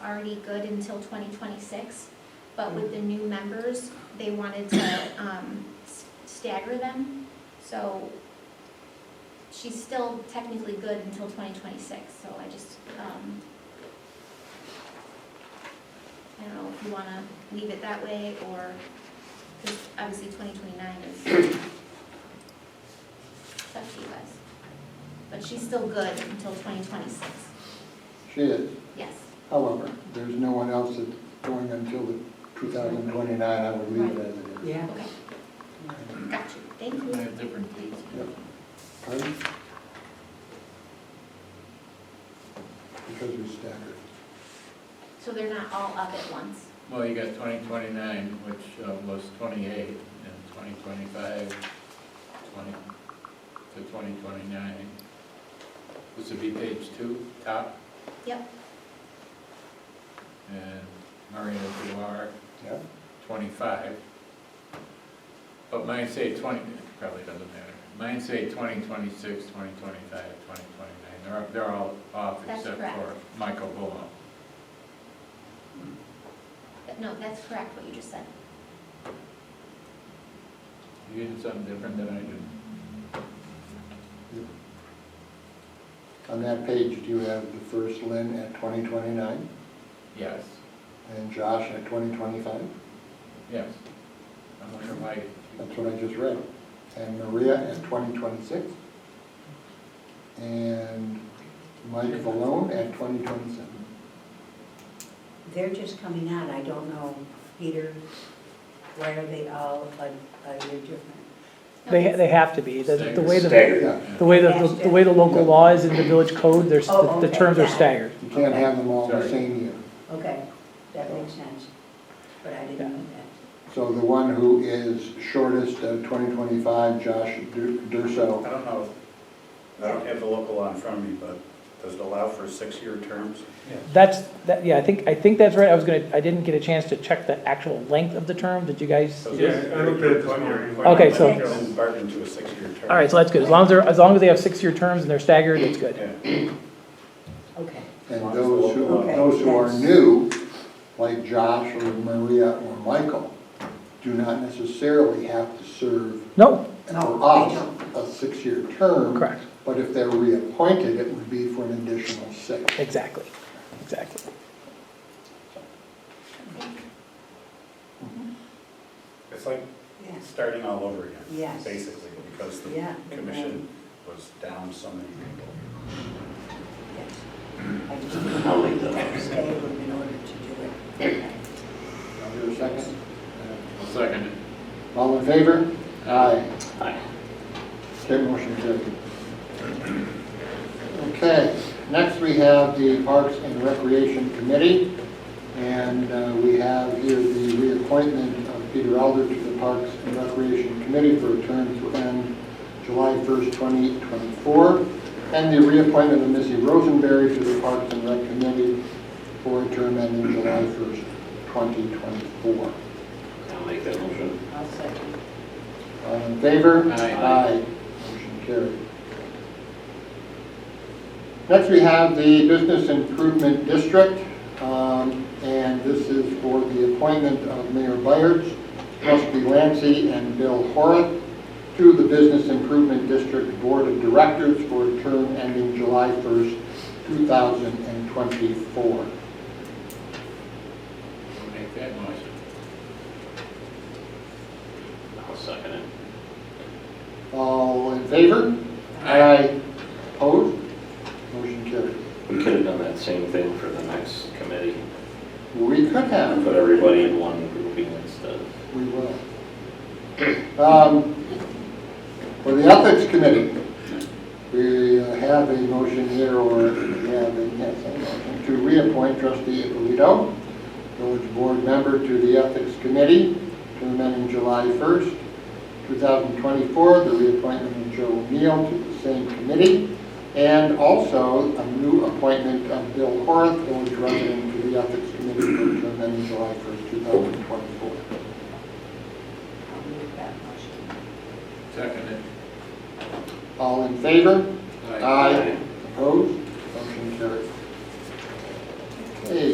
already good until twenty twenty-six, but with the new members, they wanted to, um, s- stagger them, so she's still technically good until twenty twenty-six, so I just, um, I don't know if you wanna leave it that way, or, cause obviously twenty twenty-nine is, it's up to you guys. But she's still good until twenty twenty-six, She is, yes. however, there's no one else that's going until the 2029, I would leave it as it is. Yeah. Okay, got you, thank They you. have different dates. Yep. Pardon? Because we staggered. So they're not all up at once? Well, you got twenty twenty-nine, which uh, was twenty-eight, and twenty twenty-five, twenty to twenty twenty-nine. This would be page two, top, Yep, and Maria Duar, Yeah? twenty-five. But mine say twenty, it probably doesn't matter. Mine say twenty twenty-six, twenty twenty-five, twenty twenty-nine. They're, they're all off That's except correct. for Michael Bullock. But no, that's correct what you just said. You did something different than I did. On that page, do you have the first Lynn at 2029 Yes, and Josh at 2025? yes. I'm wondering why. That's what I just read. And Maria at 2026. And Mike Valone at 2027. They're just coming out, I don't know, Peter, why are they all a, a year different? No, They, it's- they have to be, the, the way the, Staggered. Yeah, the way the, the way the local law is in the village code, there's, Oh, the okay, terms yeah. are staggered. you can't have them all the Sorry. same year. Okay, that makes sense, but I didn't know that. So the one who is shortest of 2025, Josh Dur- I Durso, don't know, I don't have the local law in front of me, but does it allow for six-year terms? That's, that, yeah, I think, I think that's right, I was gonna, I didn't get a chance to check the actual length of the term, did you guys? So Yeah, this- I looked at it one year. Okay, so- It's been bargained to a six-year term. All right, so that's good, as long as they're, as long as they have six-year terms and they're staggered, it's good. Yeah. Okay, and those who, Okay, those who are yes. new, like Josh or Maria or Michael, do not necessarily have to serve No, for No, they us a six-year term. correct, But if they're reappointed, it would be for an additional six. exactly, exactly. It's like yes, starting all over again. Yes. Basically, because the yeah. you're commission was down so many people. right, yes. I just didn't know it was staggered in order to do it. Is there a second? I'll second it. All in favor? Aye. Okay, motion carried. Okay, next we have the Parks and Recreation Committee, and uh, we have here the reappointment of Peter Elder to the Parks and Recreation Committee for a term to end July 1st, 2024, and the reappointment of Missy Rosenberry to the Parks and Rec Committee for a term ending July 1st, 2024. I'll make that motion. I'll second. All in favor? Aye. Motion carried. Next, we have the Business Improvement District, um, and this is for the appointment of Mayor Byers, Rusty Lancy, and Bill Horace to the Business Improvement District Board of Directors for a term ending July 1st, 2024. We'll Make that motion. I'll second it. All in favor? Aye. Opposed? Motion carried. We could have done that same thing for the next committee, We could have put everybody in one grouping instead of We will. Um, For the Ethics Committee, we uh, have a motion here, or we have a, yes, a motion to reappoint trustee Ippolito, village board member to the Ethics Committee, term ending July 1st, 2024, the reappointment of Joe Neal to the same committee, and also a new appointment of Bill Horace, village resident, to the Ethics Committee, for a term ending July 1st, 2024. I'll move that motion. Second it. All in favor? Aye. Aye.